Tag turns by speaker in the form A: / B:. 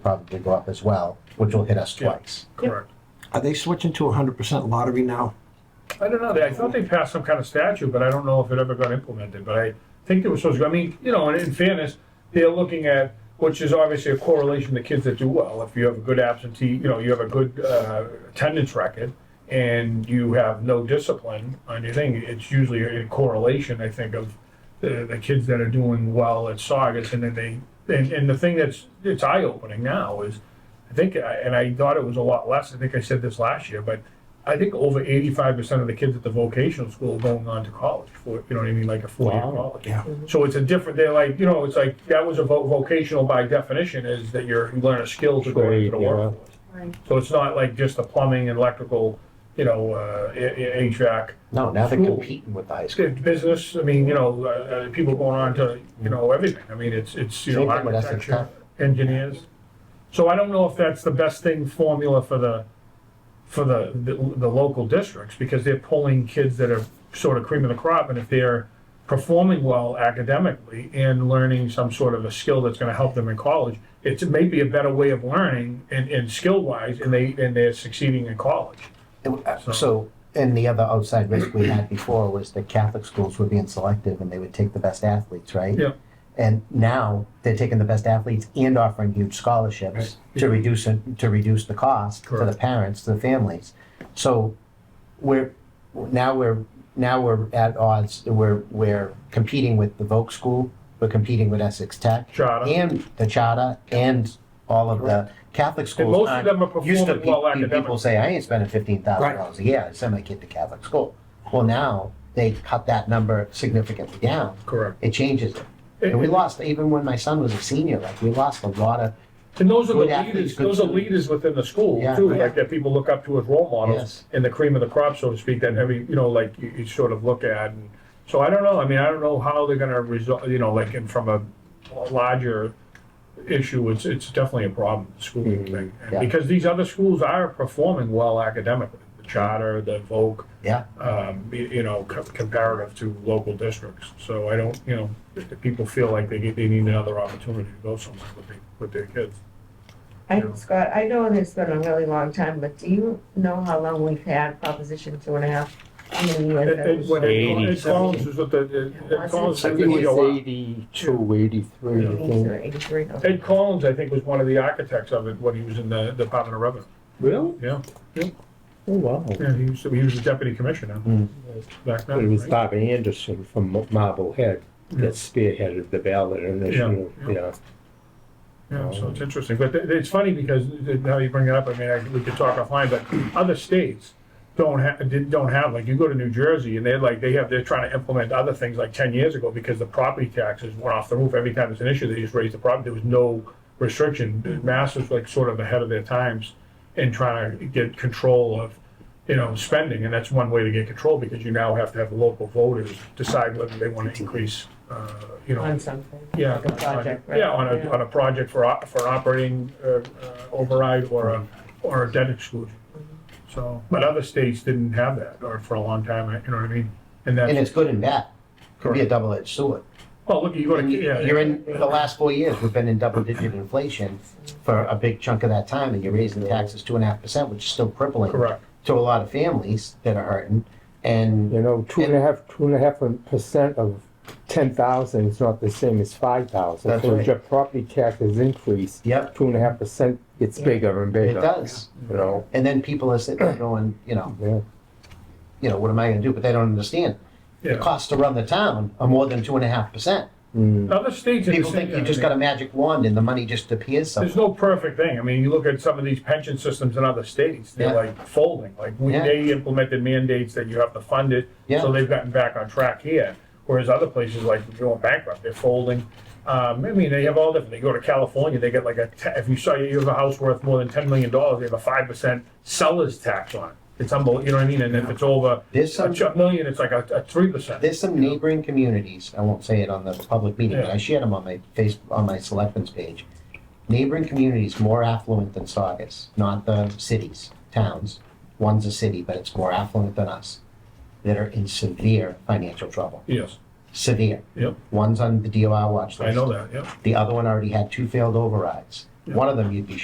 A: probably go up as well, which will hit us
B: Yeah.
A: twice.
B: Correct.
C: Are they switching to hundred percent lottery now?
B: I don't know, They- I thought they passed some kind of statute, but I don't know if it ever got implemented, but I think it was supposed to, I mean, you know, and in fairness, they're looking at, which is obviously a correlation to kids that do well, if you have a good absentee, you know, you have a good, uh, attendance record, and you have no discipline on your thing, it's usually a correlation, I think, of the, the kids that are doing well at Saugus, and then they, and, and the thing that's, it's eye-opening now is, I think, I- and I thought it was a lot less, I think I said this last year, but I think over eighty-five percent of the kids at the vocational school are going on to college for, you know what I mean, like a four-year college.
C: Yeah.
B: So it's a different, they're like, you know, it's like, that was a vo- vocational by definition is that you're, you learn a skill to go into the
D: Trade, yeah.
B: workforce.
E: Right.
B: So it's not like just the plumbing, electrical, you know, uh, A- A- HVAC,
A: No, now they're
B: Cool.
A: competing with the high school.
B: It's good business, I mean, you know, uh, uh, people going on to, you know, everything, I mean, it's, it's, you know,
A: Same thing with Essex
B: architecture, engineers. So I don't know if that's the best thing formula for the, for the, the, the local districts, because they're pulling kids that are sort of cream of the crop, and if they're performing well academically and learning some sort of a skill that's gonna help them in college, it's maybe a better way of learning and, and skill-wise, and they, and they're succeeding in college.
A: It- uh, So, and the other outside risk we had before was that Catholic schools were being selective and they would take the best athletes, right?
B: Yeah.
A: And now they're taking the best athletes and offering huge scholarships to reduce it, to reduce the cost to the
B: Correct.
A: parents, to the families. So we're, now we're, now we're at odds, we're, we're competing with the Voc school, we're competing with Essex Tech.
B: Charter.
A: And the charter and all of the Catholic schools.
B: most of
A: aren't-
B: them are
A: used to
B: performing
A: pe- pe-
B: well
A: People
B: academically.
A: say, I ain't spending fifteen thousand dollars a year, I send my kid to Catholic school. Well, now, they cut that number significantly down,
B: Correct.
A: it changes it. And we lost, even when my son was a senior, like, we lost a lot of,
B: And those are the
A: Good athletes,
B: leaders,
A: good
B: those are
A: students.
B: leaders within the school
A: Yeah.
B: too, like that people look up to as role
A: Yes.
B: models and the cream of the crop, so to speak, that every, you know, like you, you sort of look at. and So I don't know, I mean, I don't know how they're gonna resolve, you know, like, and from a larger issue, it's, it's definitely a problem, the school thing. And
A: Mm-hmm. yeah.
B: Because these other schools are performing well academically, the charter, the Voc,
A: yeah,
B: um, you, you know, co- comparative to local districts. So I don't, you know, if people feel like they, get- they need another opportunity to go somewhere with, their- with their kids.
E: I, Scott, I know it's been a really long time, but do you know how long we've had Proposition two and a half? How many years?
B: It-
E: that
B: it-
E: was-
B: When
D: Eighty
B: it
D: something.
B: Collins was with the, it-
E: Yeah,
B: Ed Collins,
D: I
B: I
E: wasn't
D: think
B: think
D: it
B: it was
D: was
B: a
D: eighty-two, eighty-three, I think.
E: 82, 83, no.
B: Ed Collins, I think, was one of the architects of it when he was in the Department of Revenue.
D: Really?
B: Yeah,
D: Oh, wow.
B: yeah, he was, he was the deputy commissioner back
D: It
B: then,
D: was
B: right?
D: Bob Anderson from Mar- Marblehead that spearheaded the ballot initiative,
B: Yeah, yeah.
D: yeah.
B: Yeah, so it's interesting, but it- it's funny because now you bring it up, I mean, I- we could talk offline, but other states don't have, don't have, like, you go to New Jersey and they're like, they have, they're trying to implement other things like ten years ago because the property taxes went off the roof. Every time it's an issue, they just raise the property, there was no restriction. Mass was like sort of ahead of their times in trying to get control of, you know, spending, and that's one way to get control because you now have to have the local voters decide whether they want to increase, uh, you know,
E: On something.
B: yeah,
E: Like a project, right?
B: yeah, on a, on a project for, op- for an operating uh, uh, override or a, or a debt exclusion.
A: Mm-hmm.
B: So, but other states didn't have that, or for a long time, you know what I mean?
A: and
B: And that's,
A: it's good and bad, could be a
B: Correct.
A: double-edged sword.
B: well, look, you go to,
A: And you-
B: yeah.
A: You're in, the last four years, we've been in double-digit inflation for a big chunk of that time, and you're raising taxes two and a half percent, which is still crippling
B: Correct,
A: to a lot of families that are hurting, and
D: You know, two and a half, two and a half percent of ten thousand is not the same as five thousand.
A: That's
D: So
A: right.
D: as your property taxes increase,
A: Yep.
D: two and a half percent gets
E: Yeah.
D: bigger and
A: it
D: bigger.
A: does.
D: You know,
A: And then people are sitting there going, you know,
D: yeah.
A: you know, what am I gonna do? But they don't understand. The
B: yeah.
A: costs to run the town are more than two and a half percent.
D: Mm.
B: Other states. in the
A: People
B: same-
A: think you
B: yeah,
A: just
B: I mean-
A: got a magic wand and the money just appears somewhere.
B: There's no perfect thing. I mean, you look at some of these pension systems in other states, they're
A: Yeah.
B: like folding. Like, we-
A: Yeah.
B: they implemented mandates that you have to fund it,
A: Yeah.
B: so they've gotten back on track here. Whereas other places, like, they're going bankrupt, they're folding. Um, I mean, they have all different, they go to California, they get like a, te- if you saw, you have a house worth more than ten million dollars, they have a five percent seller's tax on it. It's unbelievable, you know what I mean? And if it's over a
A: There's some-
B: ch- a million, it's like a, a three percent.
A: There's some neighboring communities, I won't say it on the public meeting, but
B: Yeah.
A: I shared them on my face, on my selectmen's page. Neighboring communities more affluent than Saugus, not the cities, towns. One's a city, but it's more affluent than us, that are in severe financial trouble,
B: Yes,
A: severe.
B: yep,
A: One's on the DOR watch list.
B: I know that, yep,
A: The other one already had two failed overrides. one of them you'd be